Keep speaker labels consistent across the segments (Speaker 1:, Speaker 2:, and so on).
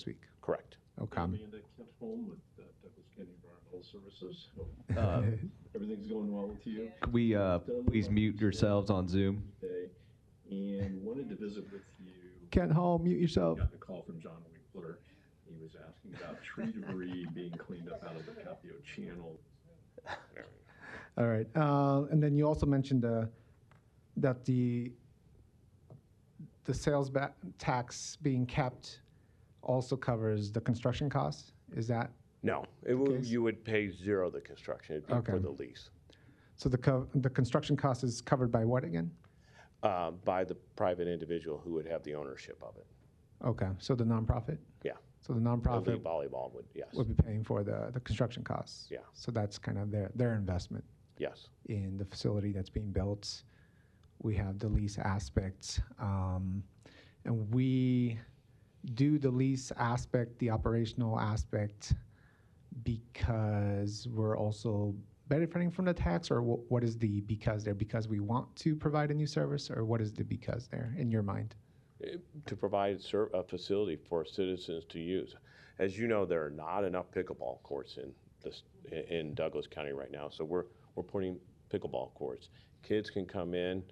Speaker 1: next week.
Speaker 2: Correct.
Speaker 1: Okay.
Speaker 3: I'll be in at Kent Home with uh, Douglas County Environmental Services. Hope
Speaker 4: Uh,
Speaker 3: Everything's going well with you
Speaker 4: Could we uh, please mute yourselves on Zoom?
Speaker 3: today, and wanted to visit with you.
Speaker 1: Kent Hall, mute yourself.
Speaker 3: Got the call from John Winkler. He was asking about tree debris being cleaned up out of the Capio Channel.
Speaker 1: All right. Uh, and then you also mentioned uh, that the the sales ba- tax being kept also covers the construction costs. Is that
Speaker 2: No, it would,
Speaker 1: case-
Speaker 2: you would pay zero the construction, it'd be
Speaker 1: Okay.
Speaker 2: for the lease,
Speaker 1: so? The co- the construction cost is covered by what again?
Speaker 2: uh, by the private individual who would have the ownership of it.
Speaker 1: Okay. So the nonprofit.
Speaker 2: Yeah.
Speaker 1: So the
Speaker 2: The
Speaker 1: nonprofit
Speaker 2: league volleyball would, yes,
Speaker 1: will be paying for the, the construction costs.
Speaker 2: Yeah.
Speaker 1: So that's kind of their their investment.
Speaker 2: yes,
Speaker 1: in the facility that's being built. We have the lease aspect. Um, and we do the lease aspect, the operational aspect, because we're also benefiting from the tax, or wh- what is the because there? Because we want to provide a new service, or what is the because there in your mind?
Speaker 2: Eh, to provide ser- a facility for citizens to use. As you know, there are not enough pickleball courts in this, i- in Douglas County right now, so we're, we're putting pickleball courts. Kids can come in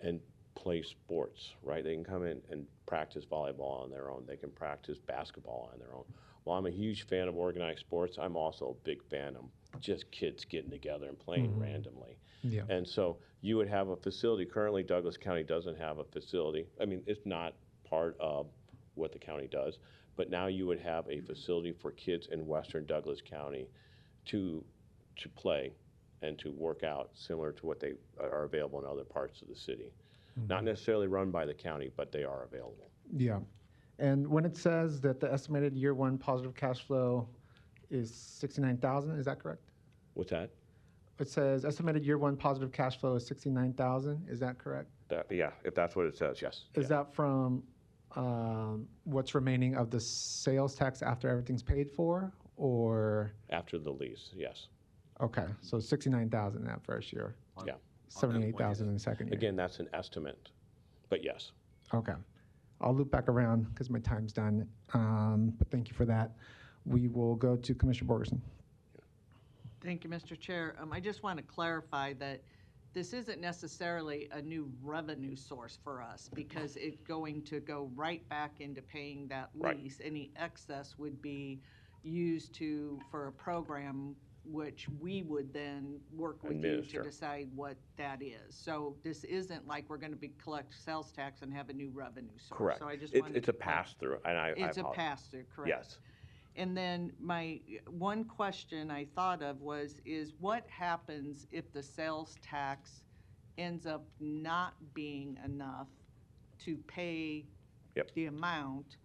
Speaker 2: and play sports, right? They can come in and practice volleyball on their own, they can practice basketball on their own. Well, I'm a huge fan of organized sports, I'm also a big fan of just kids getting together and playing randomly.
Speaker 1: Yeah.
Speaker 2: And so you would have a facility, currently Douglas County doesn't have a facility. I mean, it's not part of what the county does, but now you would have a facility for kids in western Douglas County to, to play and to work out, similar to what they are available in other parts of the city. Not necessarily run by the county, but they are available.
Speaker 1: Yeah. And when it says that the estimated year one positive cash flow is 69,000, is that correct?
Speaker 2: What's that?
Speaker 1: It says estimated year one positive cash flow is 69,000, is that correct?
Speaker 2: That, yeah, if that's what it says, yes.
Speaker 1: Is that from um, what's remaining of the sales tax after everything's paid for, or
Speaker 2: After the lease, yes.
Speaker 1: okay, so sixty-nine thousand that first year,
Speaker 2: Yeah.
Speaker 1: seventy-eight thousand in the second year.
Speaker 2: Again, that's an estimate, but yes.
Speaker 1: Okay, I'll loop back around because my time's done. Um, but thank you for that. We will go to Commissioner Borgerson.
Speaker 5: Thank you, Mr. Chair. Um, I just want to clarify that this isn't necessarily a new revenue source for us because it's going to go right back into paying that
Speaker 2: Right.
Speaker 5: lease. Any excess would be used to, for a program which we would then work with you
Speaker 2: Administer.
Speaker 5: to decide what that is. So this isn't like we're going to be collect sales tax and have a new revenue source.
Speaker 2: Correct.
Speaker 5: So I just
Speaker 2: It's-
Speaker 5: wanted
Speaker 2: It's a
Speaker 5: to clar-
Speaker 2: pass-through, and I I
Speaker 5: It's a
Speaker 2: apologize.
Speaker 5: pass-through, correct?
Speaker 2: Yes.
Speaker 5: And then my one question I thought of was, is what happens if the sales tax ends up not being enough to pay
Speaker 2: Yep.
Speaker 5: the amount?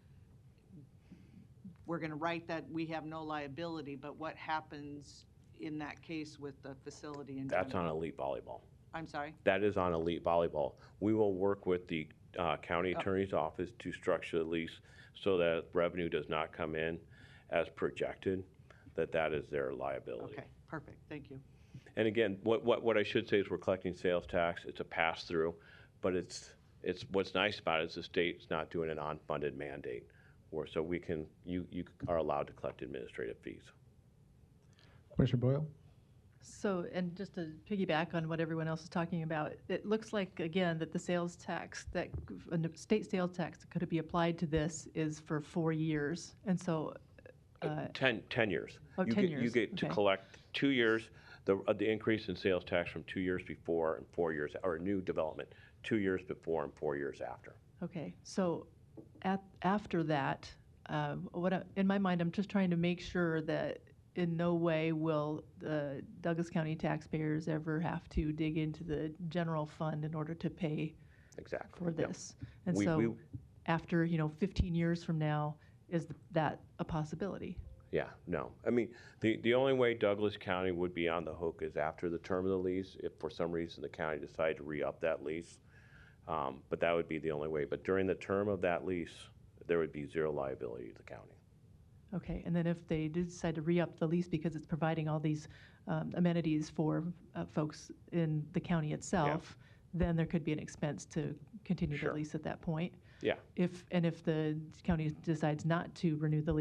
Speaker 5: We're going to write that we have no liability, but what happens in that case with the facility in
Speaker 2: That's
Speaker 5: general?
Speaker 2: on elite volleyball.
Speaker 5: I'm sorry?
Speaker 2: That is on elite volleyball. We will work with the uh, county
Speaker 5: Oh.
Speaker 2: attorney's office to structure the lease so that revenue does not come in as projected, that that is their liability.
Speaker 5: Okay, perfect, thank you.
Speaker 2: And again, what, what, what I should say is we're collecting sales tax, it's a pass-through, but it's, it's, what's nice about it is the state's not doing an unfunded mandate. Or so we can, you, you are allowed to collect administrative fees.
Speaker 1: Commissioner Boyle.
Speaker 6: So, and just to piggyback on what everyone else is talking about, it looks like, again, that the sales tax, that, and the state sales tax that could be applied to this is for four years. And so, uh,
Speaker 2: 10, 10 years.
Speaker 6: Oh,
Speaker 2: You
Speaker 6: 10
Speaker 2: get- You
Speaker 6: years,
Speaker 2: get to
Speaker 6: okay.
Speaker 2: collect two years, the, uh, the increase in sales tax from two years before and four years, or new development, two years before and four years after.
Speaker 6: okay, so at, after that, uh, what, I- in my mind, I'm just trying to make sure that in no way will the Douglas County taxpayers ever have to dig into the general fund in order to pay
Speaker 2: Exactly.
Speaker 6: for
Speaker 2: Yep.
Speaker 6: this. And
Speaker 2: We-
Speaker 6: so,
Speaker 2: we-
Speaker 6: after, you know, 15 years from now, is th- that a possibility?
Speaker 2: Yeah, no. I mean, the, the only way Douglas County would be on the hook is after the term of the lease, if for some reason the county decided to re-up that lease. Um, But that would be the only way. But during the term of that lease, there would be zero liability to the county.
Speaker 6: Okay, and then if they did decide to re-up the lease because it's providing all these um, amenities for uh, folks in the county itself, then there could be an expense to continue the
Speaker 2: Sure.
Speaker 6: lease at that point.
Speaker 2: Yeah.
Speaker 6: If, and if the county decides not to renew the lease,